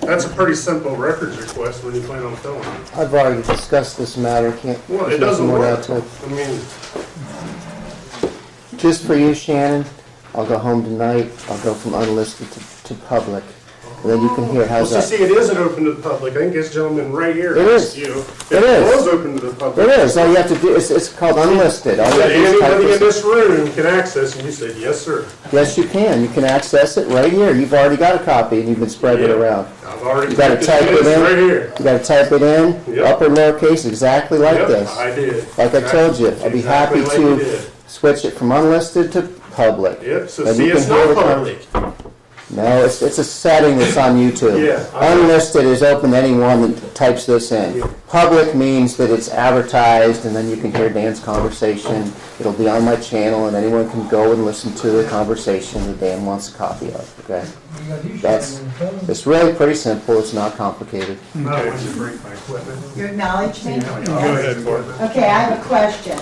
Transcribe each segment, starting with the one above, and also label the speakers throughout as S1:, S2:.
S1: That's a pretty simple records request when you plan on filling it.
S2: I've already discussed this matter, can't.
S1: Well, it
S2: there's
S1: doesn't
S2: more to
S1: work.
S2: add to it.
S1: I mean,
S2: Just for you, Shannon, I'll go home tonight, I'll go from unlisted to, to public, and then you can hear,
S1: well,
S2: how's
S1: see,
S2: that?
S1: see, it isn't open to the public. I think this gentleman right here
S2: It
S1: asked
S2: is.
S1: you.
S2: It is.
S1: It was open to the public.
S2: It is, all you have to do, it's, it's called unlisted, all you
S1: That
S2: have to do is type
S1: anybody in
S2: this.
S1: this room can access, and you said, yes, sir.
S2: Yes, you can, you can access it right here, you've already got a copy, and you've been spreading it
S1: Yeah.
S2: around.
S1: I've already.
S2: You gotta
S1: typed
S2: type it
S1: this
S2: in.
S1: Right here.
S2: You gotta type it in,
S1: Yep.
S2: upper lowercase, exactly like
S1: Yep,
S2: this.
S1: I did.
S2: Like I told you, I'd be
S1: Exactly
S2: happy
S1: like you
S2: to
S1: did.
S2: switch it from unlisted to public.
S1: Yep, so
S2: Then you
S1: see,
S2: can
S1: it's
S2: hear
S1: not
S2: the con-
S1: public.
S2: No, it's, it's a setting that's on YouTube.
S1: Yeah, I-
S2: Unlisted is open to anyone that types this in.
S1: Yeah.
S2: Public means that it's advertised, and then you can hear Dan's conversation. It'll be on my channel, and anyone can go and listen to the conversation that Dan wants a copy of, okay? That's, it's really pretty simple, it's not complicated.
S1: Okay.
S3: Your acknowledgement?
S1: Go ahead, Bart.
S3: Okay, I have a question.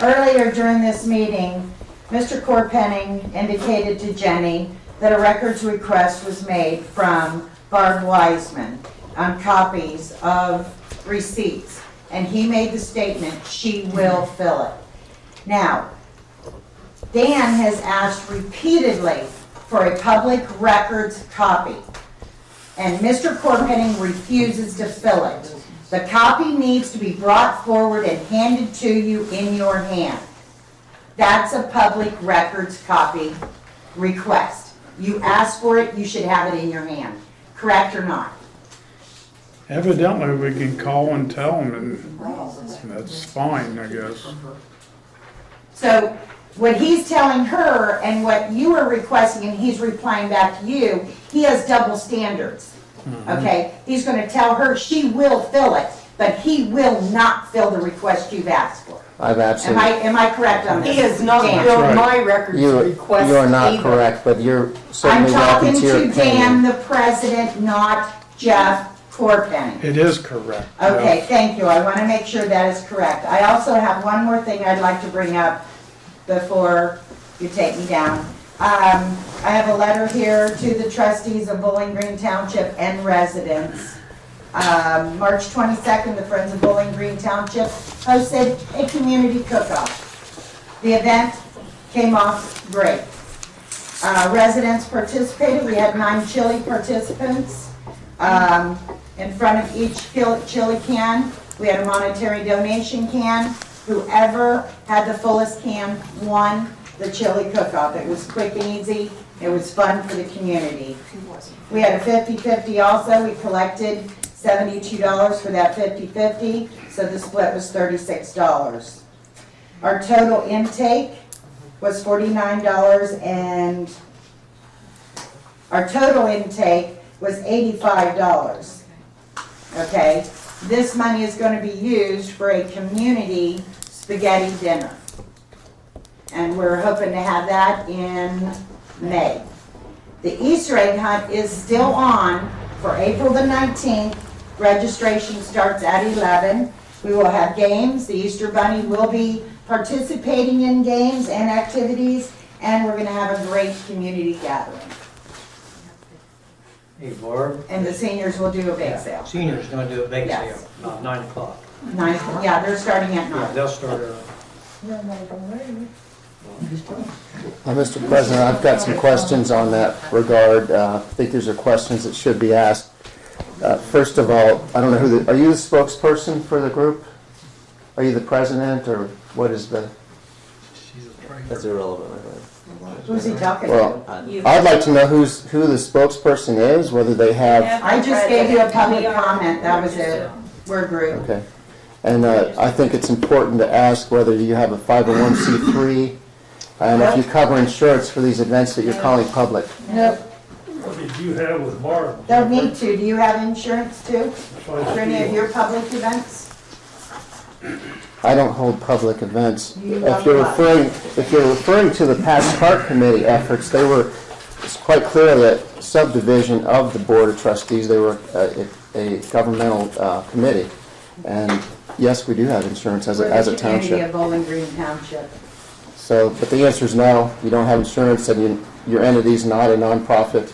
S3: Earlier during this meeting, Mr. Corpenning indicated to Jenny that a records request was made from Barb Wiseman on copies of receipts, and he made the statement, "She will fill it." Now, Dan has asked repeatedly for a public records copy, and Mr. Corpenning refuses to fill it. The copy needs to be brought forward and handed to you in your hand. That's a public records copy request. You asked for it, you should have it in your hand, correct or not?
S4: Evidently, we can call and tell them, and that's fine, I guess.
S3: So what he's telling her and what you are requesting and he's replying back to you, he has double standards. Okay, he's gonna tell her she will fill it, but he will not fill the request you've asked for.
S2: I've
S3: Am I,
S2: absolutely,
S3: am I correct on this?
S5: He has not
S3: Dan?
S5: filled
S4: right.
S5: my records
S2: you,
S5: request
S2: you are not
S5: either.
S2: correct, but you're
S3: I'm
S2: certainly welcome
S3: talking
S2: to your
S3: to Dan,
S2: opinion.
S3: the president, not Jeff Corpenning.
S4: It is correct. yeah.
S3: Okay, thank you, I want to make sure that is correct. I also have one more thing I'd like to bring up before you take me down. Um, I have a letter here to the trustees of Bowling Green Township and residents. Um, March 22nd, the Friends of Bowling Green Township hosted a community cook-off. The event came off great. Uh, Residents participated, we had nine chili participants. Um, In front of each chil- chili can, we had a monetary donation can. Whoever had the fullest can won the chili cook-off. It was quick and easy, it was fun for the community. We had a 50/50 also, we collected $72 for that 50/50, so the split was $36. Our total intake was forty-nine dollars and our total intake was eighty-five dollars. Okay, this money is gonna be used for a community spaghetti dinner. And we're hoping to have that in May. The Easter egg hunt is still on for April the nineteenth. Registration starts at eleven. We will have games. The Easter Bunny will be participating in games and activities, and we're gonna have a great community gathering.
S6: Hey, Barb.
S3: And the seniors will do a bake sale.
S6: Senior's gonna do a bake sale,
S3: Yes.
S6: about nine o'clock.
S3: Nine, yeah, they're starting at
S6: Yeah,
S3: nine.
S6: they'll start early.
S2: Uh, Mr. President, I've got some questions on that regard. Uh, I think these are questions that should be asked. Uh, First of all, I don't know who the, are you the spokesperson for the group? Are you the president, or what is the?
S7: That's irrelevant, I think.
S3: Who's he talking to?
S2: Well, I'd like to know who's, who the spokesperson is, whether they have,
S3: I just gave you a public comment, that was it. We're group.
S2: okay. And uh, I think it's important to ask whether you have a 501c3, and if you cover insurance for these events that you're calling public.
S3: Nope,
S8: What did you have with Barb?
S3: don't need to. Do you have insurance too? For any of
S8: Well,
S3: your public events?
S2: I don't hold public events.
S3: You
S2: If
S3: love
S2: you're
S3: life.
S2: referring, if you're referring to the past park committee efforts, they were, it's quite clear that subdivision of the Board of Trustees, they were a, a governmental uh, committee. And yes, we do have insurance as
S3: For
S2: a,
S3: the
S2: as a
S3: Community
S2: township.
S3: of Bowling Green Township.
S2: So, but the answer is no, you don't have insurance and you, your entity's not a nonprofit.